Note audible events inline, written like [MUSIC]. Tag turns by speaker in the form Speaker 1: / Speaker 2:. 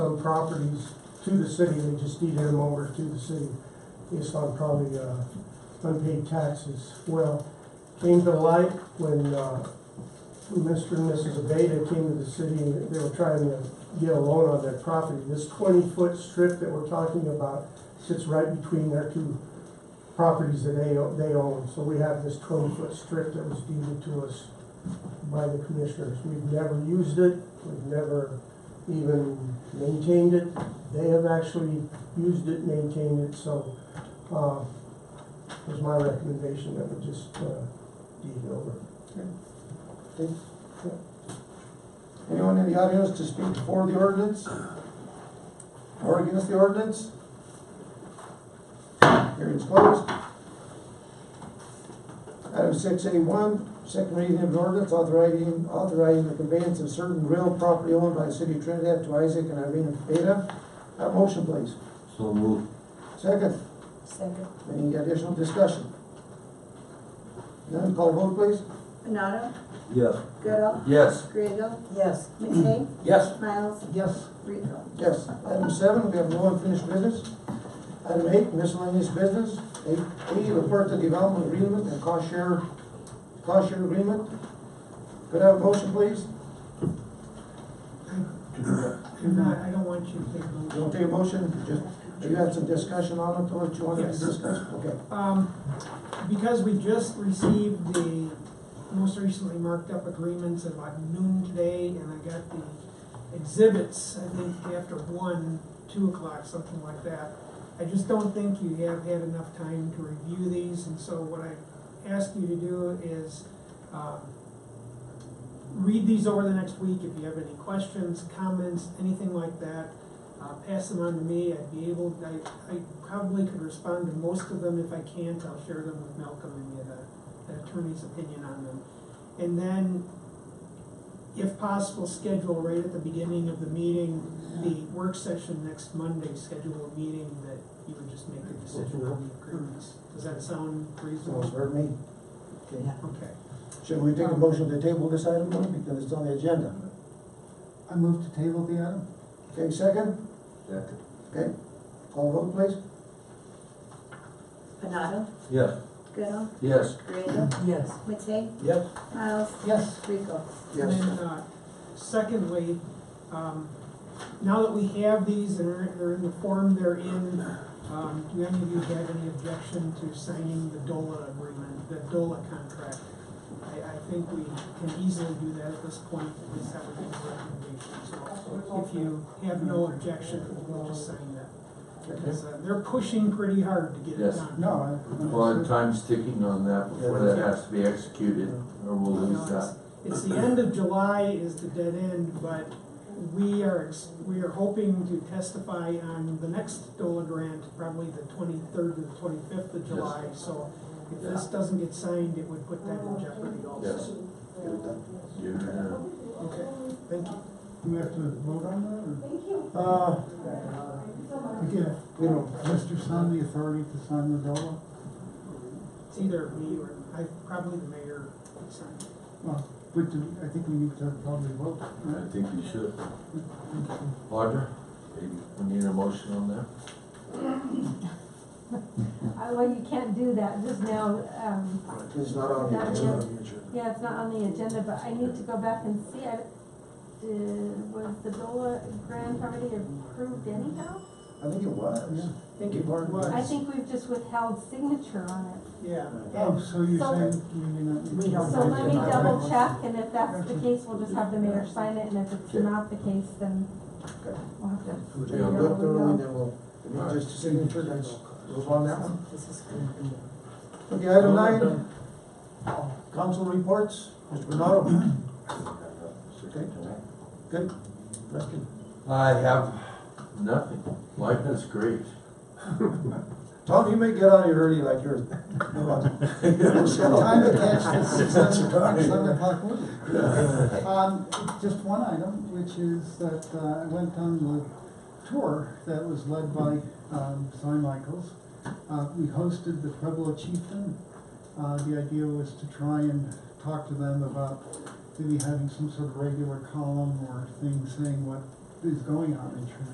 Speaker 1: some properties to the city, they just deeded them over to the city based on probably uh, unpaid taxes. Well, came to light when uh, Mr. and Mrs. Abeta came to the city and they were trying to get a loan on their property. This twenty-foot strip that we're talking about sits right between their two properties that they, o- they own. So we have this twenty-foot strip that was deeded to us by the commissioners. We've never used it, we've never even maintained it. They have actually used it, maintained it, so, uh, it was my recommendation that we just, uh, deed it over.
Speaker 2: Anyone in the audience to speak for the ordinance? Or against the ordinance? Hearing's closed. Item six A one, second reading of an ordinance authorizing, authorizing the conveyance of certain real property owned by the city of Trinidad to Isaac and Irene Beta. Have a motion, please.
Speaker 3: So move.
Speaker 2: Second,
Speaker 4: Second.
Speaker 2: any additional discussion? None, call vote, please.
Speaker 5: Benado,
Speaker 3: Yes.
Speaker 5: Goodall,
Speaker 3: Yes.
Speaker 5: Griego,
Speaker 4: Yes.
Speaker 5: McKay,
Speaker 3: Yes.
Speaker 5: Miles,
Speaker 2: Yes.
Speaker 5: Rico.
Speaker 2: Yes. Item seven, we have no unfinished business. Item eight, miscellaneous business. Eight A, report the development agreement and cost share, cost share agreement. Could I have a motion, please?
Speaker 6: I, I don't want you to take those.
Speaker 2: Don't take a motion, just, you had some discussion on it, what you wanted to
Speaker 6: Yes.
Speaker 2: discuss? Okay.
Speaker 6: Um, because we just received the most recently marked up agreements at about noon today, and I got the exhibits, I think after one, two o'clock, something like that. I just don't think you have had enough time to review these, and so what I ask you to do is, um, read these over the next week, if you have any questions, comments, anything like that, uh, pass them on to me, I'd be able, I, I probably could respond to most of them, if I can't, I'll share them with Malcolm and get a- an attorney's opinion on them. And then, if possible, schedule right at the beginning of the meeting, the work session next Monday, schedule a meeting that you would just make a decision on the agreements. Does that sound
Speaker 2: Sounds
Speaker 6: reasonable?
Speaker 2: fair to me. Okay.
Speaker 4: Yeah.
Speaker 6: Okay.
Speaker 2: Should we take a motion to table this item, though, because it's on the agenda?
Speaker 1: I move to table the item.
Speaker 2: Okay, second,
Speaker 3: Second.
Speaker 2: call vote, please.
Speaker 5: Benado,
Speaker 3: Yes.
Speaker 5: Goodall,
Speaker 3: Yes.
Speaker 5: Griego,
Speaker 4: Yes.
Speaker 5: McKay,
Speaker 2: Yep.
Speaker 5: Miles,
Speaker 2: Yes.
Speaker 5: Rico.
Speaker 2: Yes.
Speaker 6: And then, uh, secondly, um, now that we have these and are- they're in the form they're in, um, do any of you have any objection to signing the DOLA agreement, the DOLA contract? I, I think we can easily do that at this point, at least have a good recommendation, so if you have no objection, we'll just sign that. Because uh, they're pushing pretty hard to get it
Speaker 3: Yes.
Speaker 6: done.
Speaker 2: No.
Speaker 3: Well, and time's ticking on that before that has to be executed, or we'll
Speaker 6: You know,
Speaker 3: lose
Speaker 6: it's-
Speaker 3: that.
Speaker 6: It's the end of July is the dead end, but we are, ex- we are hoping to testify on the next DOLA grant, probably the twenty-third to the twenty-fifth of
Speaker 3: Yes.
Speaker 6: July, so if
Speaker 3: Yeah.
Speaker 6: this doesn't get signed, it would put that in jeopardy
Speaker 3: Yes.
Speaker 6: also.
Speaker 3: You know.
Speaker 6: Okay, thank you.
Speaker 1: Do we have to vote on
Speaker 2: Uh,
Speaker 1: that, or? Again,
Speaker 2: we don't,
Speaker 1: Mr. Sun, the authority to sign the dollar?
Speaker 6: It's either me or, I, probably the mayor would sign it.
Speaker 1: But I think we need to probably vote.
Speaker 3: I think you should. Audra, we need a motion on that?
Speaker 7: Uh, Well, you can't do that just now, um,
Speaker 2: it's not on the agenda.
Speaker 7: yeah, it's not on the agenda, but I need to go back and see, I, did, was the DOLA grant already approved anyhow?
Speaker 2: I think it was.
Speaker 6: I think it
Speaker 2: Pardon?
Speaker 6: was.
Speaker 7: I think we've just withheld signature on it.
Speaker 6: Yeah.
Speaker 2: Um,
Speaker 1: Oh, so you're
Speaker 7: So-
Speaker 1: saying we may not need to.
Speaker 6: We don't
Speaker 7: So let me
Speaker 6: Yeah.
Speaker 7: double check, and if that's the case, we'll just have the mayor sign it, and if it's
Speaker 3: Okay.
Speaker 7: not the case, then
Speaker 2: Okay.
Speaker 7: we'll have to.
Speaker 2: We'll
Speaker 3: Yeah.
Speaker 2: look through and then we'll, if you just a signature, then move on that one.
Speaker 4: This is good.
Speaker 2: Okay, item nine, council reports, Mr. Bernardo. Okay. Good. Preston.
Speaker 3: I have nothing. Life is great.
Speaker 2: Tom, you may get out of here early
Speaker 1: [LAUGHS]
Speaker 2: like yours.
Speaker 1: Um,
Speaker 2: It's the time to catch this successor dog, seven o'clock movie.
Speaker 1: Um, just one item, which is that uh, I went on the tour that was led by, um, Cy Michaels. Uh, we hosted the Pueblo chieftain. Uh, the idea was to try and talk to them about maybe having some sort of regular column or thing saying what is going on in Trinidad.